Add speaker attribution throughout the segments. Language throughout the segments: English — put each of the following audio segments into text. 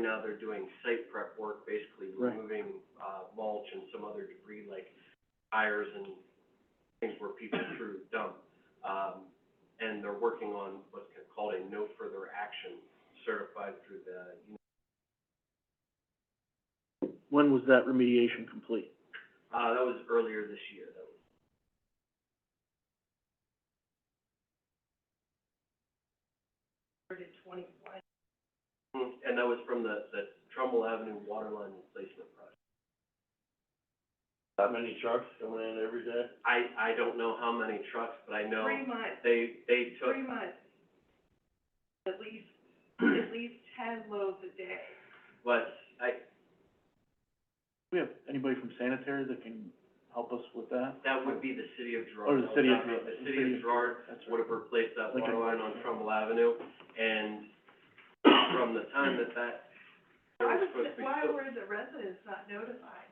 Speaker 1: now they're doing site prep work, basically
Speaker 2: Right.
Speaker 1: removing, uh, mulch and some other debris like tires and things where people threw dump. Um, and they're working on what's called a no further action certified through the,
Speaker 2: When was that remediation complete?
Speaker 1: uh, that was earlier this year, that was. Hmm, And that was from the, the Trumbull Avenue Waterline Replacement Project.
Speaker 2: That many trucks coming in every day?
Speaker 1: I, I don't know how many trucks, but I know
Speaker 3: Three months,
Speaker 1: they, they took,
Speaker 3: three months. At least, at least ten loads a day.
Speaker 1: but I,
Speaker 2: We have anybody from sanitary that can help us with that?
Speaker 1: that would be the city of Gerard.
Speaker 2: Or the city of,
Speaker 1: The city of Gerard
Speaker 2: That's
Speaker 1: would have
Speaker 2: right.
Speaker 1: replaced that
Speaker 2: Like a-
Speaker 1: water line on Trumbull Avenue, and from the time that that, there
Speaker 3: Why
Speaker 1: was
Speaker 3: was,
Speaker 1: supposed to be.
Speaker 3: why were the residents not notified?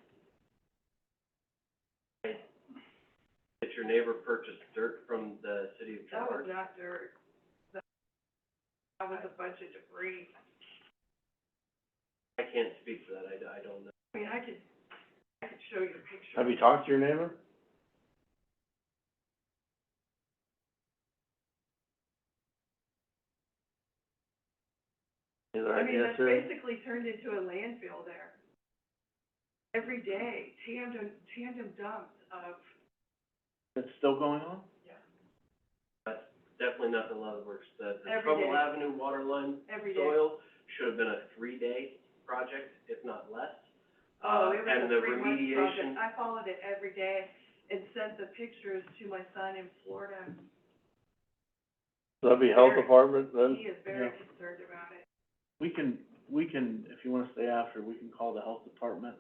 Speaker 1: That your neighbor purchased dirt from the city of
Speaker 3: That
Speaker 1: Gerard.
Speaker 3: was not dirt. That that was a bunch of debris.
Speaker 1: I can't speak for that, I, I don't know.
Speaker 3: I mean, I could, I could show you a picture.
Speaker 2: you talked to your neighbor? Is
Speaker 3: I mean, that's basically turned into a landfill there. Every day, tandem, tandem dumps of,
Speaker 2: That's still going on?
Speaker 1: That's definitely not the Love Works, the, the
Speaker 3: Every
Speaker 1: Trumbull
Speaker 3: day.
Speaker 1: Avenue water line
Speaker 3: every day.
Speaker 1: soil should have been a three-day project, if not less. Uh,
Speaker 3: Oh, it was
Speaker 1: and
Speaker 3: a
Speaker 1: the
Speaker 3: three-month
Speaker 1: remediation-
Speaker 3: project. I followed it every day and sent the pictures to my son in Florida.
Speaker 2: That'd be
Speaker 3: health
Speaker 2: department
Speaker 3: He is very
Speaker 2: Yeah.
Speaker 3: concerned about it.
Speaker 2: We can, we can, if you wanna stay after, we can call the health department.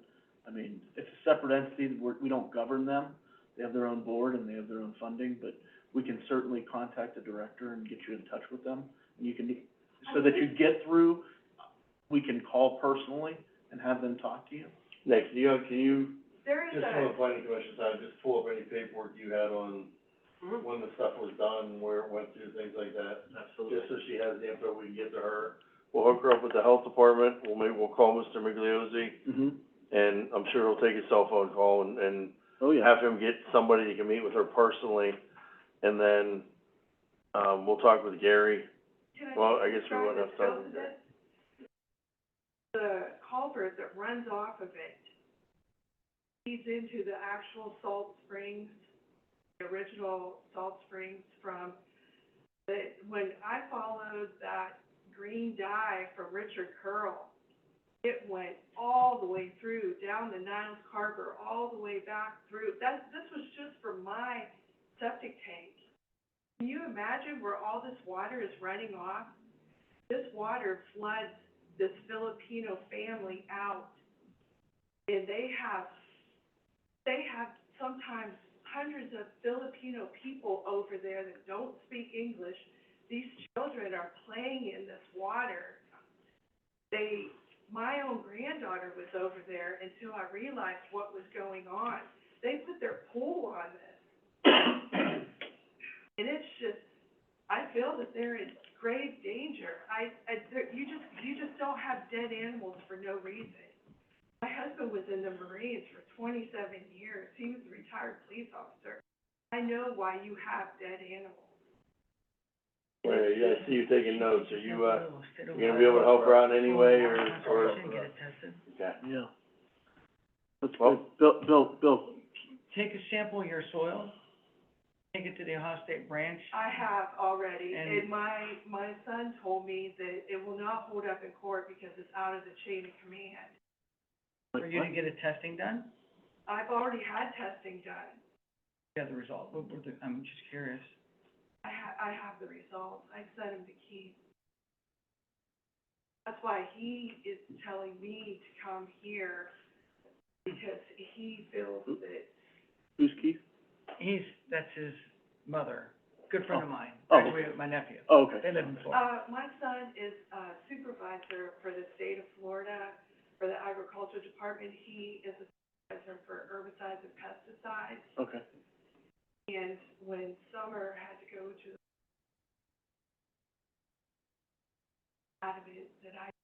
Speaker 2: I mean, it's a separate entity, we're, we don't govern them. They have their own board and they have their own funding, but we can certainly contact the director and get you in touch with them. And you can, so that you get through, we can call personally and have them talk to you.
Speaker 4: Next, do you, have- can you,
Speaker 3: There is
Speaker 4: just from the
Speaker 3: a,
Speaker 4: planning commission side, just pull up any paperwork you had on
Speaker 1: Mhm.
Speaker 3: Mm-hmm.
Speaker 4: when the stuff was done, where it went through, things like that? Just
Speaker 1: Absolutely.
Speaker 4: so she has the info, we can get to her. We'll hook her up with the health department, we'll maybe, we'll call Mr. Migliozzi,
Speaker 2: Mm-hmm.
Speaker 4: and I'm sure he'll take a cell phone call and, and
Speaker 2: Oh, yeah.
Speaker 4: have him get somebody that can meet with her personally. And then, um, we'll talk with Gary,
Speaker 3: can I
Speaker 4: well, I
Speaker 3: just
Speaker 4: guess we won't
Speaker 3: describe the
Speaker 4: have time
Speaker 3: scope of
Speaker 4: today.
Speaker 3: it? The culvert that runs off of it feeds into the actual salt springs, the original salt springs from the, when I followed that green dye from Richard Curl, it went all the way through, down the Niles Harbor, all the way back through. That, this was just for my septic tank. Can you imagine where all this water is running off? This water floods this Filipino family out. And they have, they have sometimes hundreds of Filipino people over there that don't speak English. These children are playing in this water. They, my own granddaughter was over there until I realized what was going on. They put their pool on this. And it's just, I feel that they're in grave danger. I, I, there- you just, you just don't have dead animals for no reason. My husband was in the Marines for twenty-seven years. He was a retired police officer. I know why you have dead animals.
Speaker 4: Wait, yeah, I see you taking notes, are you, uh, you gonna be able to help her out in any way, or, or? Okay.
Speaker 2: Yeah. That's
Speaker 4: Well-
Speaker 2: good. Bill, Bill, Bill,
Speaker 5: Take a sample of your soil, take it to the Ohio State branch.
Speaker 3: I have already,
Speaker 5: And-
Speaker 3: and my, my son told me that it will not hold up in court because it's out of the chain of command.
Speaker 5: For you to get a testing done,
Speaker 3: I've already had testing done.
Speaker 5: you have the result, what were the, I'm just curious.
Speaker 3: I ha- I have the results, I sent him the key. That's why he is telling me to come here, because he feels that,
Speaker 2: who's Keith?
Speaker 5: He's, that's his mother, good friend of mine,
Speaker 2: Oh, okay.
Speaker 5: graduated with my nephew.
Speaker 2: Oh, okay.
Speaker 5: They live in Florida.
Speaker 3: uh, my son is, uh, supervisor for the state of Florida, for the agriculture department, he is a supervisor for herbicides and pesticides,
Speaker 2: Okay.
Speaker 3: and when Summer had to go to out of it, that I